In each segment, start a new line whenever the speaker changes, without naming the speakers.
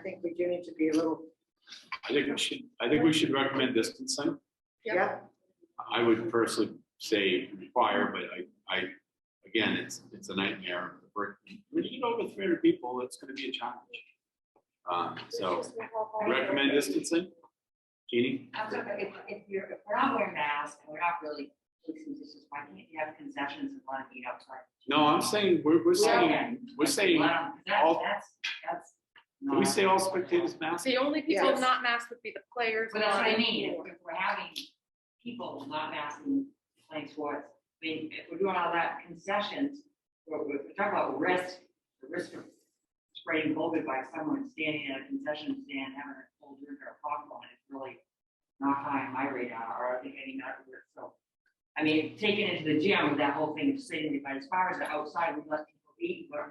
think we do need to be a little,
I think we should, I think we should recommend distancing.
yeah,
I would personally say require, but I, I, again, it's, it's a nightmare. We're- When you get over three hundred people, it's gonna be a challenge. Um, so recommend distancing. Jeannie?
I'm sorry, but if, if you're, if we're not wearing masks and we're not really policing distance, why can't you have concessions and let it be outside?
No, I'm saying, we're, we're saying, we're saying,
Wow, that-
all-
That's, that's.
can we
not-
say all spectators masked?
The only people
Yes.
not masked would be the players.
But that's what I
and-
mean, if we're- if we're having people not masking playing sports, I mean, if we're doing all that concessions, we're, we're talking about risk, the risk of spreading COVID by someone standing at a concession stand having a cold drink or a popcorn is really not high on my radar, or I think any medical risk, so. I mean, taking it to the gym with that whole thing of sitting, but as far as the outside, we let people eat, but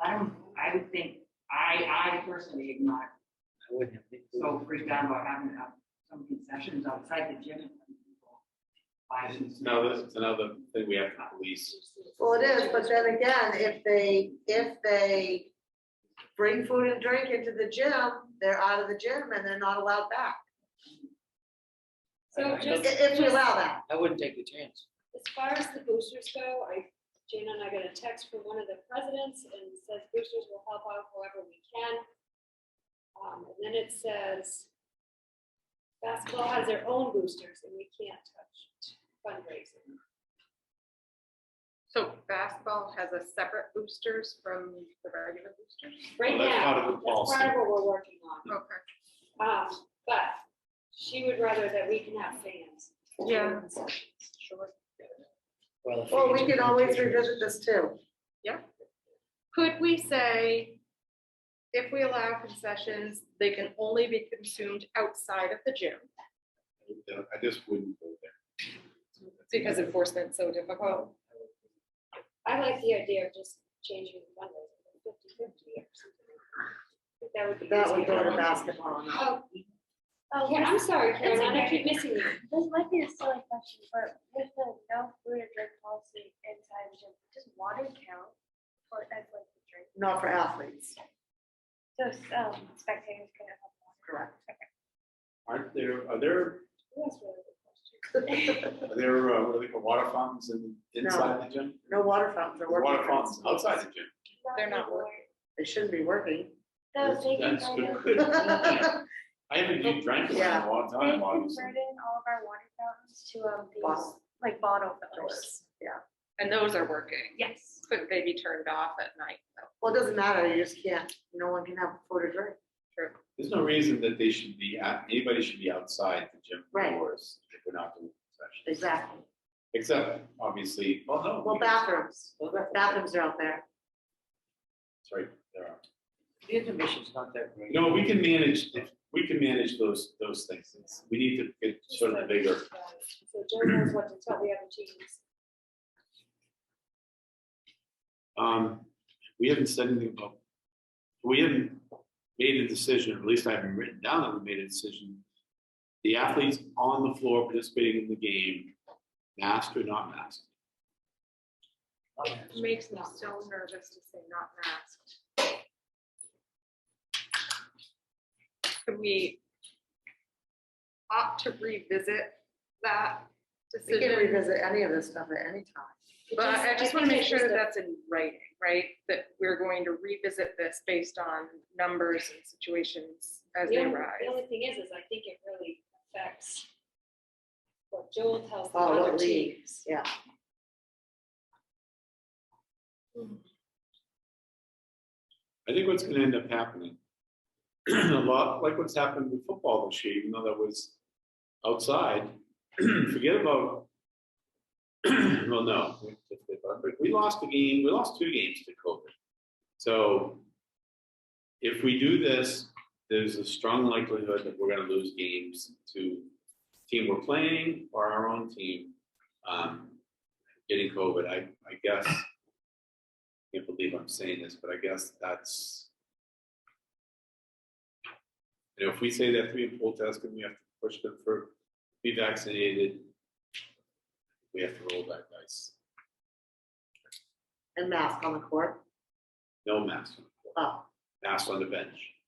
I don't, I would think, I, I personally am not
I wouldn't have. picked it.
so freaked out about having to have some concessions outside the gym. and letting people buy some
It's another, it's another thing we have to police.
well, it is, but then again, if they, if they bring food and drink into the gym, they're out of the gym and they're not allowed back,
I-
So
I
i-
just.
if we allow that.
I wouldn't take the chance.
As far as the boosters go, I, Jana and I got a text from one of the presidents and says boosters will help out however we can. Um, and then it says basketball has their own boosters and we can't touch fundraising.
So basketball has a separate boosters from the regular boosters.
Right
Well, that's part of the
now, that's
policy.
part of what we're working on.
Okay.
Um, but she would rather that we can have fans.
Yeah. Sure.
Well, if
Well,
you
we
get
can
to
always
the-
revisit this too.
Could we say, if we allow concessions, they can only be consumed outside of the gym?
I just wouldn't go there.
Because enforcement's so difficult.
I like the idea of just changing the fundraising to fifty fifty or something. I think That would be.
That would go
easier.
to basketball.
Oh, oh, yeah, I'm sorry, Karen, I keep missing you.
This might be a silly question, but with the no food or drink policy inside the gym, does water count for as like a drink?
Not for athletes,
So um, spectators can have water.
correct.
Aren't there, are there,
That's a really good question.
are there, uh, what are they called, water fountains in, inside the gym?
No water fountains are working.
Water fountains outside the gym.
They're not
They shouldn't be working.
No, they can
That's
kind of,
good.
Bottled
I haven't even drank it in
Yeah.
a long
they
time, obviously.
converted all of our water fountains to um, these, like bottle fillers.
doors, Yeah,
And those are working.
Yes.
Couldn't they be turned off at night though?
well, it doesn't matter, you just can't, no one can have food or drink.
There's no reason that they should be, out- anybody should be outside the gym
Right.
doors if we're not doing concessions.
Exactly.
Except, obviously, well, no.
Well, bathrooms,
Well,
bathrooms are out there.
Sorry, there are.
The intermission's not that great.
No, we can manage, we can manage those, those things. It's- We need to get sort of the bigger.
So Joe knows what to tell the other teams.
Um, we haven't said anything about, we haven't made a decision, or at least I haven't written down that we made a decision. The athletes on the floor participating in the game, masked or not masked.
Makes me so nervous to say not masked. Could we opt to revisit that
We can
decision?
revisit any of this stuff at any time.
But I just want to
think
make
it's
sure that
just a-
that's in writing, right? That we're going to revisit this based on numbers and situations as
The
they
only-
arise.
The only thing is, is I think it really affects what Joel tells the
Oh, what
other
league,
teams.
yeah.
I think what's gonna end up happening, a lot like what's happened with football this year, even though that was outside, forget about, well, no, we- we lost the game, we lost two games to COVID. So if we do this, there's a strong likelihood that we're gonna lose games to team we're playing or our own team, um, getting COVID, I, I guess can't believe I'm saying this, but I guess that's. You know, if we say that three and full test and we have to push them for, be vaccinated, we have to roll that dice.
And mask on the court,
No mask, on the court,
oh,
mask on the bench.